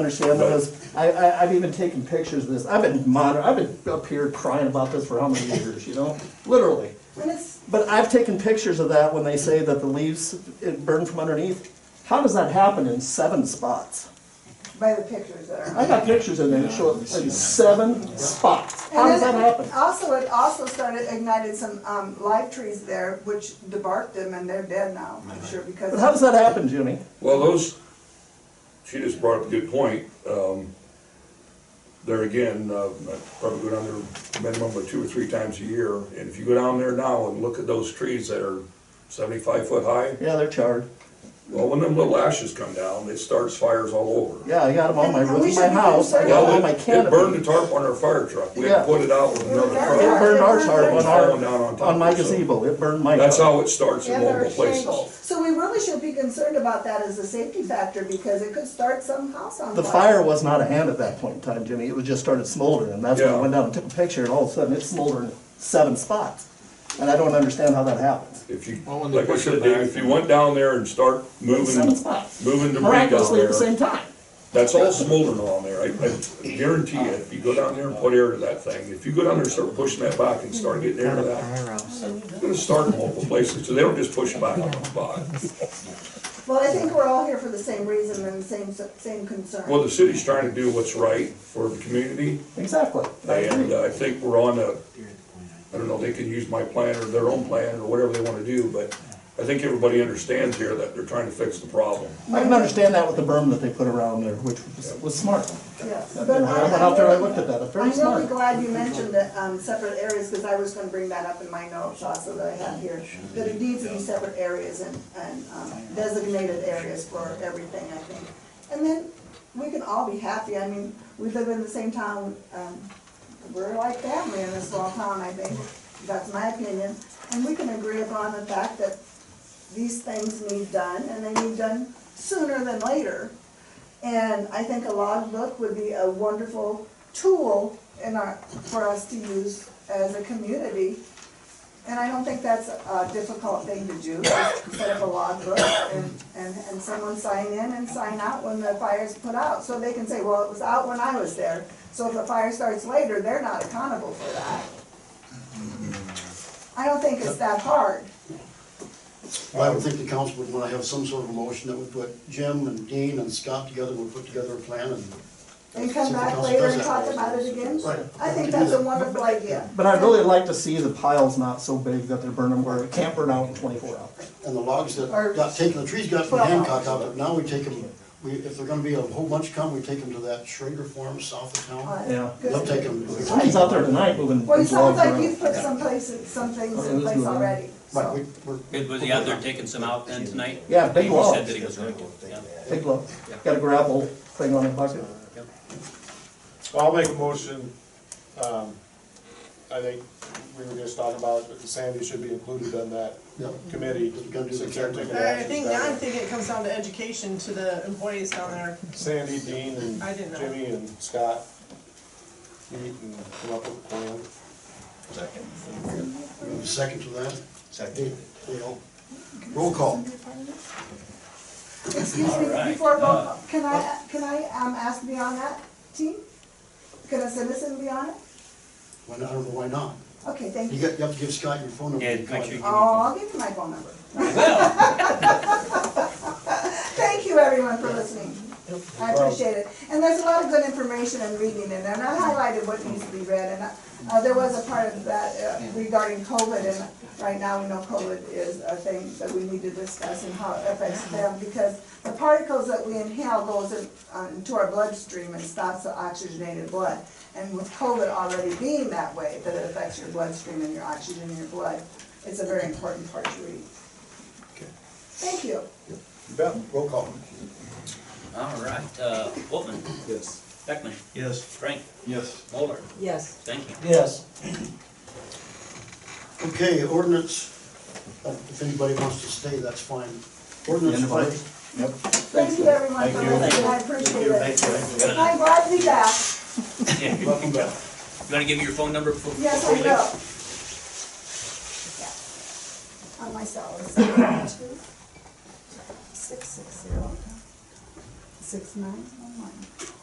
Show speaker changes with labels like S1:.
S1: understand this. I, I, I've even taken pictures of this. I've been moder, I've been up here crying about this for how many years, you know? Literally.
S2: When it's,
S1: But I've taken pictures of that when they say that the leaves it burn from underneath. How does that happen in seven spots?
S2: by the pictures that are.
S1: I got pictures in there that show it in seven spots. How
S2: And
S1: does
S2: then
S1: Oh, that happen?
S2: Also, it also started, ignited some, um, live trees there, which debarked them and they're dead now, I'm sure, because.
S1: But how does that happen, Jimmy?
S3: Well, those, she just brought up a good point. Um, There again, uh, I probably go down there minimum of two or three times a year. And if you go down there now and look at those trees that are seventy-five foot high,
S1: Yeah, they're charred.
S3: well, when them little ashes come down, it starts fires all over.
S1: Yeah, I got them on my
S2: And- and
S1: roof
S2: we
S1: of
S2: should
S1: my
S2: be
S1: house. I got
S2: concerned-
S1: them
S3: Well,
S1: on my
S3: it- it burned
S1: canopy.
S3: the
S1: It
S3: tarp on our fire truck. We had
S1: Yeah.
S3: to put it out with another truck.
S1: burned our tarp
S3: It's
S1: on our,
S3: falling down on top
S1: on my
S3: of itself.
S1: gazebo. It burned my.
S3: That's
S1: tarp.
S3: how it starts in
S4: Yeah, there are
S3: multiple places.
S4: shingles.
S2: So we really should be concerned about that as a safety factor because it could start some house on fire.
S1: The fire was not a hand at that point in time, Jimmy. It was just started smoldering, and that's when I
S3: Yeah.
S1: went down and took a picture, and all of a sudden, it's smoldering seven spots. And I don't understand how that happens.
S3: If you,
S5: Well, when they
S3: like I
S5: push
S3: said,
S5: it
S3: Dave,
S5: back-
S3: if you went down there and start moving,
S1: Seven spots.
S3: moving debris down
S1: Miraculously at the
S3: there,
S1: same time.
S3: that's all smoldering on there. I, I guarantee you, if you go down there and put air to that thing, if you go down there and start pushing that back and start getting air to that, it's gonna start in multiple places, so they don't just push it back on the spot.
S2: Well, I think we're all here for the same reason and same, same concern.
S3: Well, the city's trying to do what's right for the community,
S1: Exactly. I
S3: and uh,
S1: agree.
S3: I think we're on a, I don't know, they can use my plan or their own plan or whatever they wanna do, but I think everybody understands here that they're trying to fix the problem.
S1: I can understand that with the berm that they put around there, which was- was smart.
S2: Yes.
S1: I
S2: But
S1: went
S2: I-
S1: out there, I looked at that, it's very
S2: I'm really
S1: smart.
S2: glad you mentioned the um, separate areas, because I was gonna bring that up in my notes also that I have here. That it needs to be separate areas and, and um, designated areas for everything, I think. And then we can all be happy, I mean, we live in the same town, um, we're like family in this small town, I think. That's my opinion. And we can agree upon the fact that these things need done, and they need done sooner than later. And I think a logbook would be a wonderful tool in our, for us to use as a community. And I don't think that's a difficult thing to do, just set up a logbook and, and, and someone sign in and sign out when the fire's put out. So they can say, well, it was out when I was there. So if the fire starts later, they're not accountable for that. I don't think it's that hard.
S6: Well, I would think the council would want to have some sort of motion that would put Jim and Dean and Scott together, would put together a plan and.
S2: And come
S6: See if the
S2: back
S6: council
S2: later
S6: does
S2: and
S6: that.
S2: talk about it again.
S6: Right.
S2: I think that's a wonderful idea.
S1: But I'd really like to see the piles not so big that they're burning where it can't burn out in twenty-four hours.
S6: And the logs that
S2: Or-
S6: got taken, the trees got from
S2: Well-
S6: Hancock out, but now we take them, we, if they're gonna be a whole bunch come, we take them to that Schrader Farm south of
S2: All
S6: town.
S2: right.
S1: Yeah.
S2: Good.
S6: They'll take them.
S1: Somebody's out there tonight moving
S2: Well, it
S1: logs
S2: sounds like
S1: around.
S2: you've put some places, some things
S1: Oh, let's
S2: in place
S1: do it.
S2: already,
S6: But we,
S2: so.
S6: we're.
S4: It was he out there taking some out then tonight?
S1: Yeah, big
S4: He said
S1: logs,
S4: that he was going to, yeah.
S1: big logs. Got a gravel thing on the bucket.
S5: Well, I'll make a motion, um, I think we were just talking about that Sandy should be included in that
S6: Yep.
S5: committee.
S6: We're gonna do the
S5: since they're taking
S6: exact-
S7: All right, I
S5: actions
S7: think,
S5: down
S7: now I'm
S5: there.
S7: thinking it comes down to education to the employees down there.
S5: Sandy, Dean, and
S7: I didn't know.
S5: Jimmy, and Scott, meet and come up with a plan.
S6: Second to that? Second. You know, roll call.
S2: Excuse me, before, vote, can I, can I um, ask to be on that team? Can a citizen be on it?
S6: Why not, I don't know why not.
S2: Okay, thank
S6: You
S2: you.
S6: got, you have to give Scott your phone number.
S4: Yeah, make sure you-
S2: Oh, I'll give you my phone number. Thank you, everyone, for listening. I appreciate it. And there's a lot of good information and reading in there, and I highlighted what needs to be read, and, uh, uh, there was a part of that uh, regarding COVID, and right now, we know COVID is a thing that we need to discuss and how it affects them, because the particles that we inhale goes in, uh, into our bloodstream and stops the oxygenated blood. And with COVID already being that way, that it affects your bloodstream and your oxygen in your blood, it's a very important part to read. Thank you.
S6: Bet, roll call.
S4: All right, uh, Wolfman. Yes. Beckman. Yes. Frank. Yes. Mulder.
S7: Yes.
S4: Thank you.
S1: Yes.
S6: Okay, ordinance, uh, if anybody wants to stay, that's fine.
S1: End
S6: Ordinance
S1: of
S6: five,
S1: order. Yep.
S2: Thank you, everyone, for listening, I appreciate it. I'm glad to be back,
S4: Yeah. You
S6: welcome back.
S4: want to give me your phone number before?
S2: yes, I
S4: before you
S2: will. On
S4: leave?
S2: my cell, it's 2 660 660 Six nine oh nine.